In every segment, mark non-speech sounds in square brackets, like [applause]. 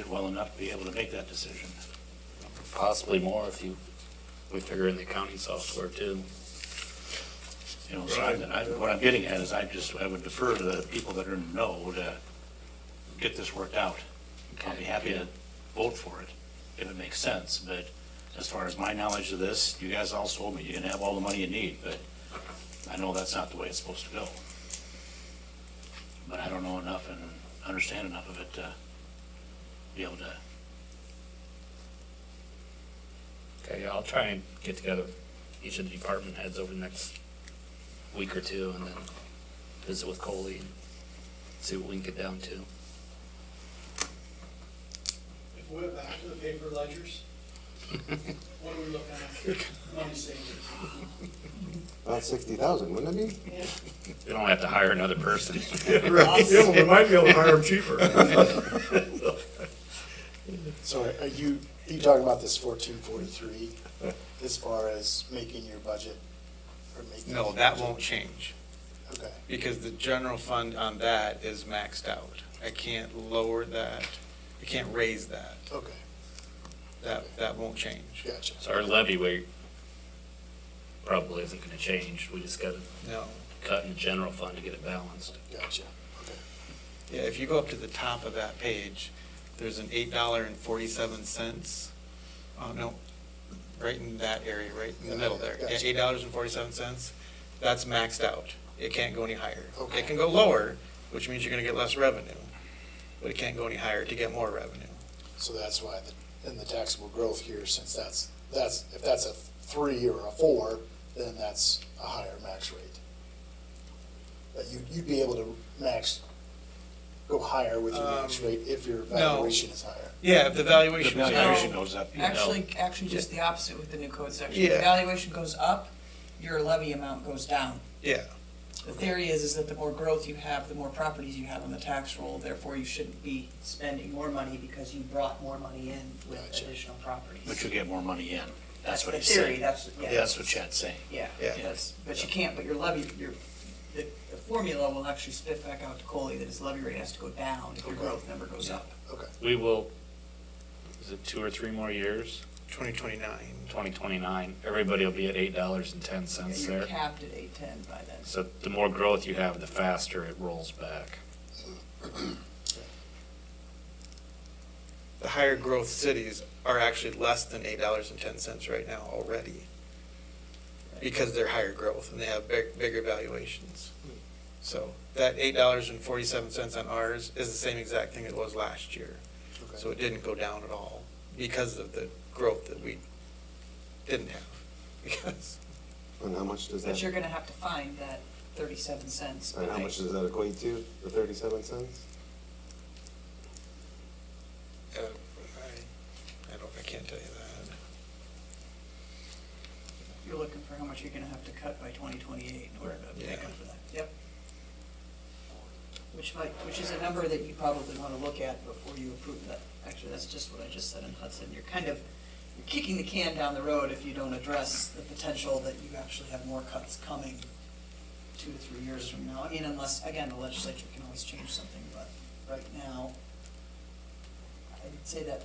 it well enough to be able to make that decision. Possibly more if you, we figure in the accounting software too. You know, so I, I, what I'm getting at is I just, I would defer to the people that are in the know to get this worked out. I'll be happy to vote for it if it makes sense, but as far as my knowledge of this, you guys all told me you can have all the money you need, but I know that's not the way it's supposed to go. But I don't know enough and understand enough of it to be able to, Okay, I'll try and get together each of the department heads over the next week or two and then visit with Coley and see what we can get down to. If we went back to the paper ledgers, what are we looking at? Money savings. About Uh, sixty thousand, wouldn't it be? We don't have to hire another person. [laughs] Yeah, we might be able to hire them cheaper. So are- are you, are you talking about this fourteen forty-three as far as making your budget or making? No, that won't change, Okay, because the general fund on that is maxed out. I can't lower that, I can't raise that, okay, that, that won't change, gotcha. So our levy rate probably isn't gonna change. We just gotta no. cut in the general fund to get it balanced. Gotcha. Yeah, if you go up to the top of that page, there's an eight dollar and forty-seven cents, oh, no, right in that area, right in the middle there, Gotcha. eight dollars and forty-seven cents, that's maxed out. It can't go any higher. Okay. It can go lower, which means you're gonna get less revenue, but it can't go any higher to get more revenue. So that's why the, in the taxable growth here, since that's, that's, if that's a three or a four, then that's a higher max rate. But you, you'd be able to max, go higher with your max Um, rate if your valuation is higher. Yeah, if the the valuation was higher, valuation goes up. you know. Actually, actually just the opposite with the new code section. Yeah. If valuation goes up, your levy amount goes down. yeah, The theory is, is that the more growth you have, the more properties you have on the tax roll, therefore you shouldn't be spending more money because you brought more money in with Gotcha. additional properties. But you get more money in. That's what the he's theory, saying. That's, yeah. That's what Chad's saying. Yeah, Yeah. that's, but you can't, but your levy, your, the, the formula will actually spit back out to Coley that his levy rate has to go down if your growth number goes up. We will, is it two or three more years? twenty twenty-nine. Twenty twenty-nine, everybody will be at eight dollars and ten cents You're there. capped at eight ten by then. So the more growth you have, the faster it rolls back. The higher growth cities are actually less than eight dollars and ten cents right now already. Because they're higher growth and they have big, bigger valuations. So that eight dollars and forty-seven cents on ours is the same exact thing it was last year. Okay. So it didn't go down at all because of the growth that we didn't have. [laughs] Because, And how much does But that, you're gonna have to find that thirty-seven cents. and how by- much does that equate to, the thirty-seven cents? uh, I, I don't, I can't tell you that. You're looking for how much you're gonna have to cut by twenty twenty-eight in order to make up for that, yep. Which might, which is a number that you probably wanna look at before you approve that. Actually, that's just what I just said in Hudson, you're kind of, you're kicking the can down the road if you don't address the potential that you actually have more cuts coming two to three years from now. I mean, unless, again, the legislature can always change something, but right now, I'd say that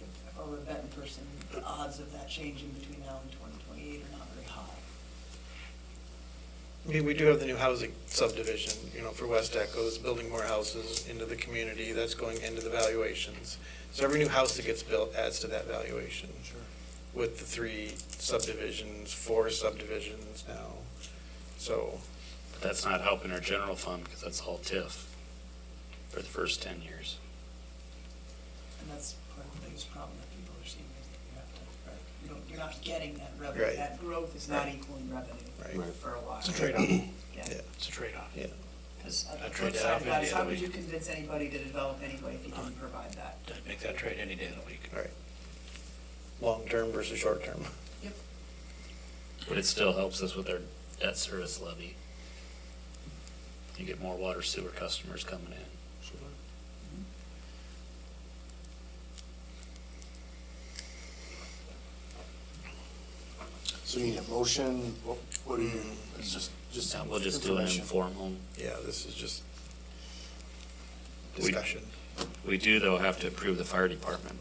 if I were a betting person, the odds of that changing between now and twenty twenty-eight are not very high. I mean, we do have the new housing subdivision, you know, for West Echo, that's building more houses into the community, that's going into the valuations. So every new house that gets built adds to that valuation. Sure. With the three subdivisions, four subdivisions now, so, But that's not helping our general fund because that's all TIF for the first ten years. And that's part of the biggest problem that people are seeing is that you have to, right, you don't, you're not getting that Right. revenue. That growth is not Right. equaling revenue Right. for a while. It's a trade-off, Yeah, it's a trade-off. yeah. because on I the trade flip that side up of that any is other how could week. you convince anybody to develop anyway if you didn't provide that? I'd Make that trade any day of the week. long-term versus short-term. But it still helps us with our debt service levy. You get more water sewer customers coming in. So you need a motion, what, what do you, it's just, just. We'll just do an information. informal Yeah, this is just We- discussion. We do, though, have to approve the fire department